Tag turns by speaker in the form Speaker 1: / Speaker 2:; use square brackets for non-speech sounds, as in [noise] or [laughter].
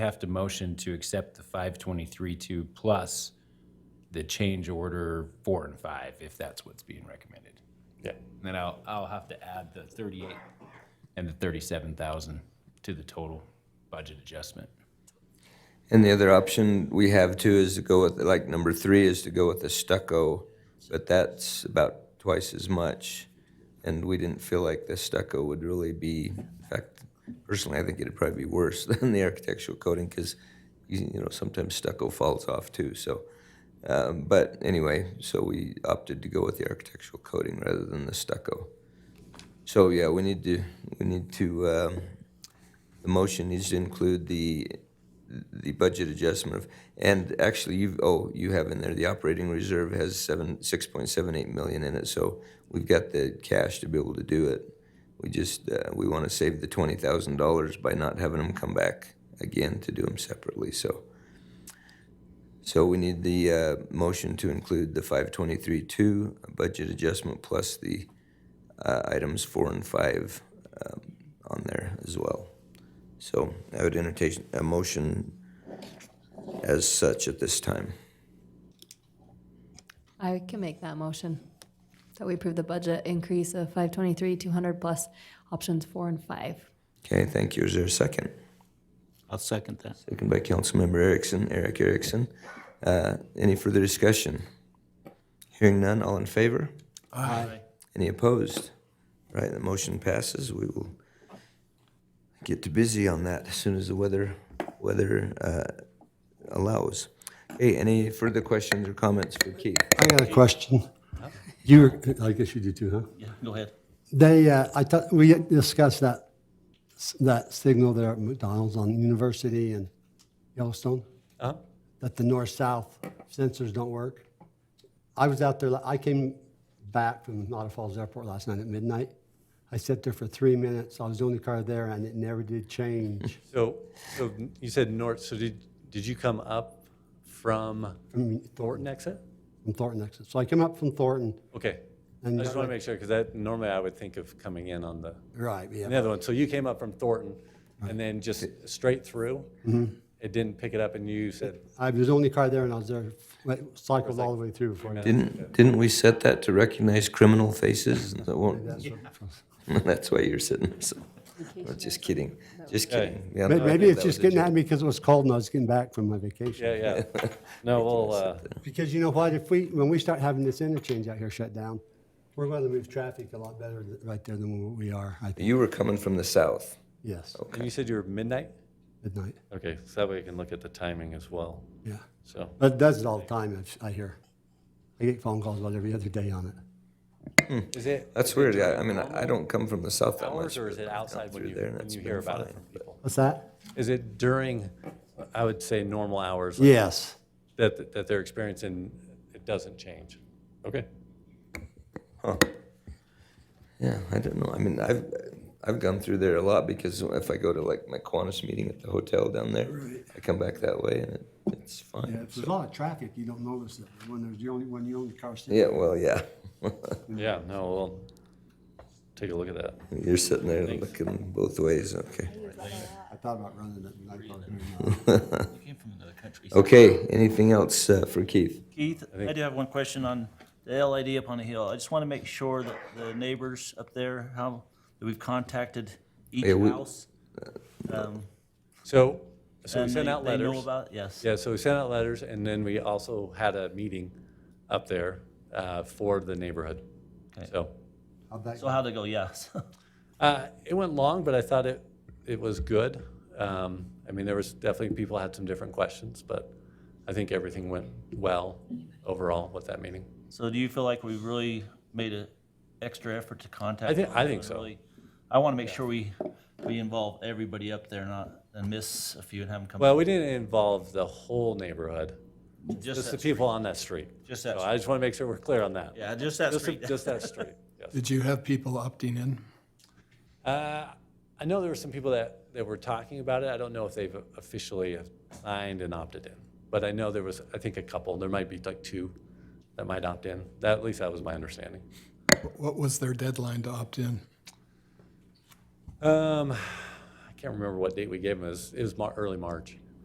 Speaker 1: have to motion to accept the five twenty-three two plus the change order four and five, if that's what's being recommended.
Speaker 2: Yeah.
Speaker 1: And Then I'll, I'll have to add the thirty-eight and the thirty-seven thousand to the total budget adjustment.
Speaker 3: And the other option we have too is to go with, like, number three is to go with the stucco, but that's about twice as much. And we didn't feel like the stucco would really be, in fact, personally, I think it'd probably be worse [laughs] than the architectural coating because, you you know, sometimes stucco falls off too, so. um, But anyway, so we opted to go with the architectural coating rather than the stucco. So, yeah, we need to, we need to, um, the motion needs to include the the budget adjustment of, and actually, you've, oh, you have in there, the operating reserve has seven, six point seven eight million in it, so we've got the cash to be able to do it. We just, uh, we wanna save the twenty thousand dollars by not having them come back again to do them separately, so. So we need the, uh, motion to include the five twenty-three two budget adjustment plus the, uh, items four and five, um, on there as well. So I would entertain a motion as such at this time.
Speaker 4: I can make that motion, that we approve the budget increase of 523, 200 plus options four and five.
Speaker 3: Okay, thank you. Is there a second?
Speaker 5: I'll second that.
Speaker 3: Second by Councilmember Erickson, Eric Erickson. Uh, Any further discussion? Hearing none, all in favor? Aye. Any opposed? Right, the motion passes. We will get to busy on that as soon as the weather, weather uh, allows. Okay, any further questions or comments for Keith?
Speaker 6: I got a question. You, were- I guess you do too, huh?
Speaker 5: Yeah, go ahead.
Speaker 6: They, uh, I thought, we discussed that, s- that signal there at McDonald's on University and Yellowstone,
Speaker 2: Uh-huh.
Speaker 6: that the north-south sensors don't work. I was out there, la- I came back from Otter Falls Airport last night at midnight. I sat there for three minutes. I was the only car there and it never did change. [laughs]
Speaker 2: So, so you said north, so did, did you come up from
Speaker 6: From
Speaker 2: Thornton
Speaker 6: Thornton,
Speaker 2: exit?
Speaker 6: from Thornton exit. So I came up from Thornton
Speaker 2: Okay. I
Speaker 6: and.
Speaker 2: just want to make sure, because that, normally I would think of coming in on the,
Speaker 6: Right,
Speaker 2: the
Speaker 6: yeah.
Speaker 2: other one. So you came up from Thornton and then just straight through?
Speaker 3: Mm-hmm.
Speaker 2: It didn't pick it up and
Speaker 3: [laughs]
Speaker 2: you said,
Speaker 6: I was the only car there and I was there, like, cycled all the way through before. I-
Speaker 3: Didn't, didn't we set that to recognize criminal faces? That won't, [laughs] that's why you're sitting, so, I'm just kidding, just kidding. Yeah, no,
Speaker 6: May-
Speaker 3: I
Speaker 6: Maybe
Speaker 3: think
Speaker 6: it's
Speaker 3: that was
Speaker 6: just
Speaker 3: a
Speaker 6: getting
Speaker 3: joke.
Speaker 6: at me because it was cold and I was getting back from my vacation.
Speaker 2: yeah, yeah.
Speaker 3: [laughs]
Speaker 2: No, we'll, uh,
Speaker 6: Because you know what, if we, when we start having this interchange out here shut down, we're going to move traffic a lot better th- right there than what we are, I think,
Speaker 3: You were coming from the south.
Speaker 6: yes,
Speaker 3: Oh.
Speaker 2: uh, and you said you were midnight?
Speaker 6: midnight,
Speaker 2: Okay, so that way you can look at the timing as well,
Speaker 6: yeah.
Speaker 2: so.
Speaker 6: But it does it all the time, I've- I hear. I get phone calls about every other day on it.
Speaker 2: Is it
Speaker 3: That's weird, I, I mean, I I don't come from the south that much.
Speaker 2: hours or is it outside when
Speaker 3: through
Speaker 2: you,
Speaker 3: there and
Speaker 2: when
Speaker 3: it's
Speaker 2: you
Speaker 3: been
Speaker 2: hear about it
Speaker 3: fine,
Speaker 2: from people?
Speaker 6: What's that?
Speaker 2: Is it during, I would say, normal hours? like,
Speaker 6: Yes,
Speaker 2: That, that they're experiencing, it doesn't change? Okay.
Speaker 3: Yeah, I don't know, I mean, I've, I've gone through there a lot because if I go to like my Qantas meeting at the hotel down there, I come back that way and it, it's fine.
Speaker 6: if there's a lot of traffic, you don't notice it, but when there's the only, when you own the car sitting.
Speaker 3: Yeah, well, yeah, [laughs]
Speaker 2: Yeah, no, we'll take a look at that.
Speaker 3: you're sitting there looking both ways, okay.
Speaker 6: I thought about running it, but I thought, "No,
Speaker 5: You came from another country.
Speaker 3: Okay, anything else uh, for Keith?
Speaker 5: Keith, I do have one question on the LID up on the hill. I just want to make sure that the neighbors up there, how, that we've contacted each
Speaker 3: Yeah, we-
Speaker 5: house. um,
Speaker 2: So, so we
Speaker 5: and
Speaker 2: sent
Speaker 5: they-
Speaker 2: out
Speaker 5: They
Speaker 2: letters.
Speaker 5: know about, it? yes.
Speaker 2: Yeah, so we sent out letters, and then we also had a meeting up there uh, for the neighborhood. So,
Speaker 6: how'd that
Speaker 5: So how'd it go? Yes.
Speaker 2: uh, it went long, but I thought it, it was good. Um, I mean, there was definitely, people had some different questions, but I think everything went well overall with that meeting.
Speaker 5: [laughs] So do you feel like we've really made an extra effort to contact?
Speaker 2: I thi-
Speaker 5: them
Speaker 2: I think
Speaker 5: and
Speaker 2: so.
Speaker 5: really- I want to make sure we, we involve everybody up there, not, and miss a few and have them come.
Speaker 2: Well, we didn't involve the whole neighborhood,
Speaker 5: Just
Speaker 2: just the
Speaker 5: that,
Speaker 2: people on that street.
Speaker 5: Just that
Speaker 2: So I just want to make sure we're clear on that.
Speaker 5: yeah, just that
Speaker 2: Just, the-
Speaker 5: street.
Speaker 2: just
Speaker 5: [laughs]
Speaker 2: that street, yes.
Speaker 7: Did you have people opting in?
Speaker 2: Uh, I know there were some people that, that were talking about it. I don't know if they've officially signed and opted in. But I know there was, I think, a couple. There might be like two that might opt in. That, at least that was my understanding.
Speaker 7: What was their deadline to opt in?
Speaker 2: Um, I can't remember what date we gave them. It was, it was Mar- early March.